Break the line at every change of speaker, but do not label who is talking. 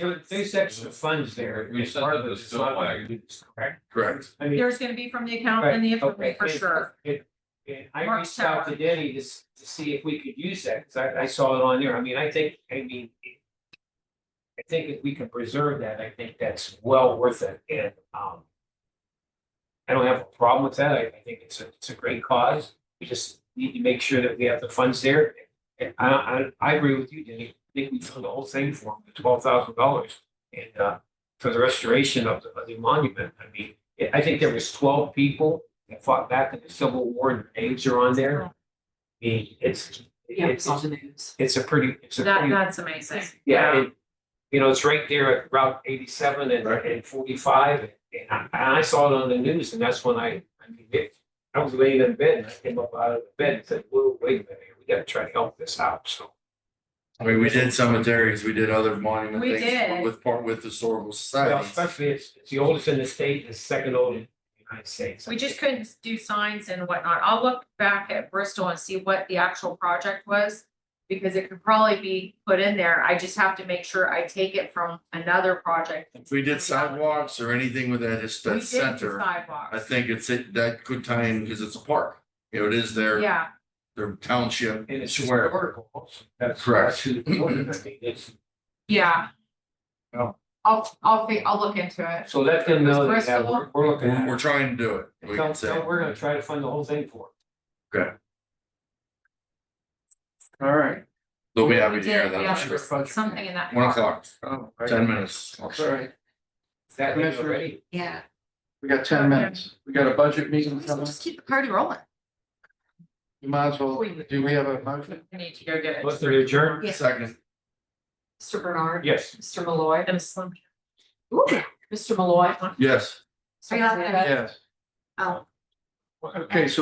There- There's extra funds there.
We
It's
said
part
that
of
the
it.
snow wagon-
Correct.
Correct.
I mean.
There's gonna be from the accountant and the
okay,
infantry for
it-
sure.
it- it- I
Mark
reached out to
Sauer.
Denny to, s- to see if we could use that, because I, I saw it on there. I mean, I think, I mean. it- I think if we can preserve that, I think that's well worth it and, um. I don't have a problem with that. I, I think it's a, it's a great cause. We just need to make sure that we have the funds there. And I, I, I agree with you, Denny. I think we done the whole thing for him, the twelve thousand dollars. And, uh, for the restoration of the, of the monument. I mean, I- I think there was twelve people that fought back in the Civil War and their names are on there. I mean, it's, it's,
the news.
it's a pretty, it's a
That,
pretty,
that's amazing.
yeah, and, you know, it's right there at Route eighty-seven and,
Right.
and forty-five. And I, and I saw it on the news and that's when I, I mean, it, I was laying in bed and I came up out of the bed and said, whoa, wait a minute, here. we gotta try to help this out, so.
I mean, we did cemeteries, we did other monument
We
things
did.
with part with historical
Well,
societies.
especially it's, it's the oldest in the state, it's second oldest in the United States.
We just couldn't do signs and whatnot. I'll look back at Bristol and see what the actual project was. Because it could probably be put in there. I just have to make sure I take it from another project.
If we did sidewalks or anything with that, his-
We
that
did do
center, I
sidewalks.
think it's it, that could tie in, cause it's a park. You know, it is their,
Yeah,
their township.
And it's
square.
historical also. That's
Correct.
that's who- I mean, it's-
yeah.
No.
I'll, I'll, fi- I'll look into it.
So let them know that yeah,
Bristol.
we're, we're looking
We're,
at.
we're
it.
trying to do it. we
Tell-
can say.
tell- We're gonna try to fund the whole thing for
All right. They'll be happy
We
to hear
did,
that,
yeah,
I'm sure.
Something in that.
One o'clock,
Oh, right.
ten minutes.
Sorry,
it. That is
Commissioner-
already.
Yeah,
we got ten minutes. We got a budget meeting
Let's
coming.
just keep the party rolling.
You might as well, do we have a motion?
We need to go get
What's
it.
their adjourn?
Yeah.
Second,
Mr. Bernard.
Yes.
Mr. Malloy.
And Slim.
Ooh, Mr. Malloy.
yes.
Mr.
Yes.
Hernandez. Oh.
Okay, so